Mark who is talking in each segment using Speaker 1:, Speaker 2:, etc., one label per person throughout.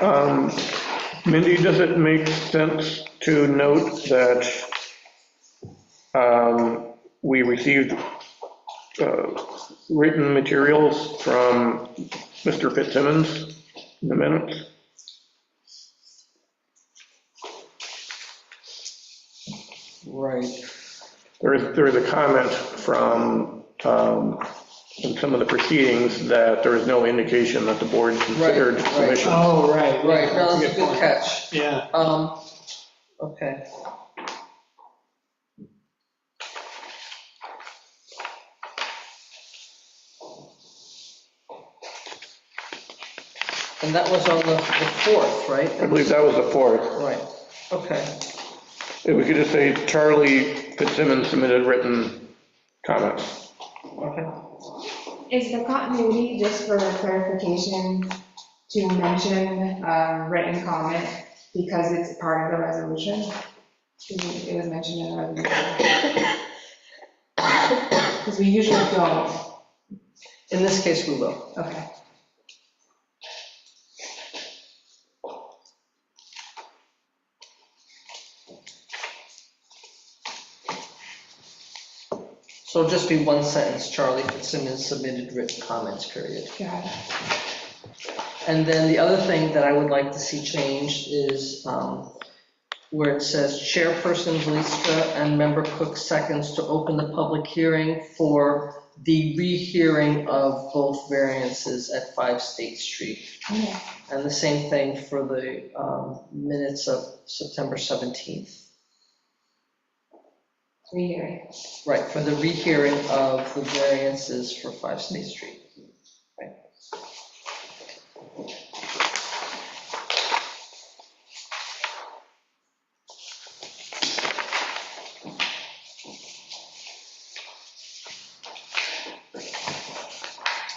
Speaker 1: Um, Mindy, does it make sense to note that um, we received uh, written materials from Mr. Fitzsimmons in the minutes?
Speaker 2: Right.
Speaker 1: There is, there is a comment from, um, in some of the proceedings that there is no indication that the board considered
Speaker 2: right.
Speaker 1: submission.
Speaker 3: Oh, right,
Speaker 2: Right,
Speaker 3: right.
Speaker 2: no, that's a good catch.
Speaker 3: Yeah,
Speaker 2: Um, okay. And that was on the, the fourth, right?
Speaker 1: I believe that was the fourth.
Speaker 2: Right, okay,
Speaker 1: If we could just say Charlie Fitzsimmons submitted written comments.
Speaker 2: okay.
Speaker 4: Is the continuity, just for clarification, to mention uh, written comment because it's part of the resolution? It was mentioned in the resolution. Because we usually don't,
Speaker 2: In this case, we will.
Speaker 4: okay.
Speaker 2: So it'll just be one sentence, Charlie Fitzsimmons submitted written comments, period.
Speaker 4: Got it.
Speaker 2: And then the other thing that I would like to see changed is um, where it says Chairperson Blista and Member Cook seconds to open the public hearing for the rehearing of both variances at 5 State Street.
Speaker 4: Yeah.
Speaker 2: And the same thing for the um, minutes of September 17th.
Speaker 4: Rehearing.
Speaker 2: Right, for the rehearing of the variances for 5 State Street.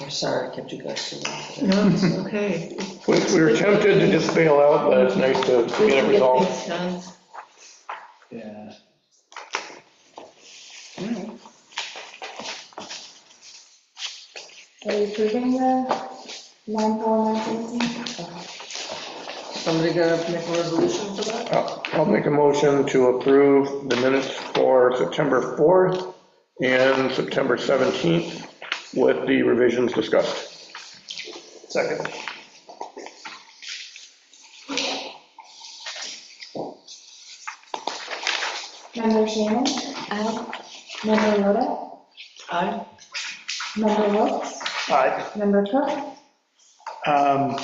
Speaker 2: I'm sorry, I kept you guys so long today.
Speaker 5: No, it's okay.
Speaker 1: We we were tempted to just bail out, but it's nice to
Speaker 5: We
Speaker 1: get
Speaker 5: can
Speaker 1: it resolved.
Speaker 5: things done.
Speaker 3: yeah.
Speaker 4: Are you approving the line four, line 17? Okay.
Speaker 2: Somebody gonna make a resolution for that?
Speaker 1: I'll I'll make a motion to approve the minutes for September 4th and September 17th with the revisions discussed. Second.
Speaker 4: Member Shannon? Aye. Member Loda?
Speaker 3: I,
Speaker 4: Member Wilks?
Speaker 3: I,
Speaker 4: Member Cook?
Speaker 3: um,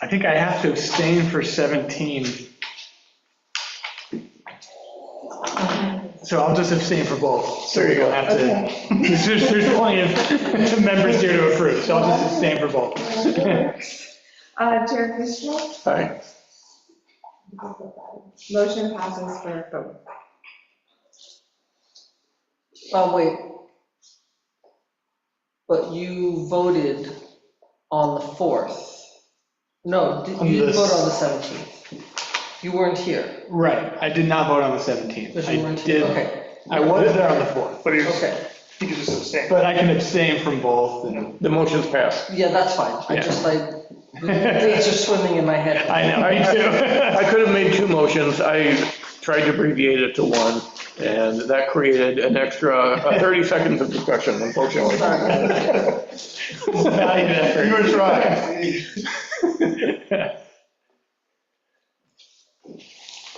Speaker 3: I think I have to abstain for 17, so I'll just abstain for both. So
Speaker 1: There you
Speaker 3: we don't
Speaker 1: go.
Speaker 3: have to-
Speaker 4: Okay.
Speaker 3: There's, there's plenty of members here to approve, so I'll just abstain for both.
Speaker 4: Uh, Chair Fishman?
Speaker 1: Aye.
Speaker 4: Motion passes for both.
Speaker 2: Oh, wait. But you voted on the 4th. No, did-
Speaker 3: On
Speaker 2: you didn't
Speaker 3: this.
Speaker 2: vote on the 17th. You weren't here,
Speaker 3: Right, I did not vote on the 17th.
Speaker 2: because
Speaker 3: I
Speaker 2: you weren't here.
Speaker 3: did-
Speaker 2: Okay,
Speaker 3: I was there on the 4th,
Speaker 6: But he's,
Speaker 2: okay.
Speaker 6: he could just abstain.
Speaker 3: but I can abstain from both, and
Speaker 1: The motion's passed.
Speaker 2: Yeah, that's fine. I
Speaker 3: Yeah.
Speaker 2: just like, the dates are swimming in my head.
Speaker 3: I know, me
Speaker 1: I could have made two motions. I tried to abbreviate it to one, and that created an extra uh, 30 seconds of discussion, unfortunately.
Speaker 3: too. Valued effort.
Speaker 6: You were trying.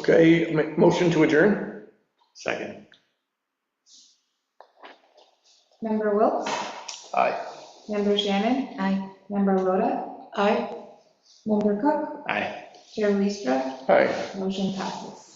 Speaker 1: Okay, ma- motion to adjourn?
Speaker 3: Second.
Speaker 4: Member Wilks?
Speaker 3: Aye.
Speaker 4: Member Shannon?
Speaker 5: Aye.
Speaker 4: Member Loda?
Speaker 5: Aye.
Speaker 4: Member Cook?
Speaker 3: Aye.
Speaker 4: Chair Liestra?
Speaker 1: Aye.
Speaker 4: Motion passes.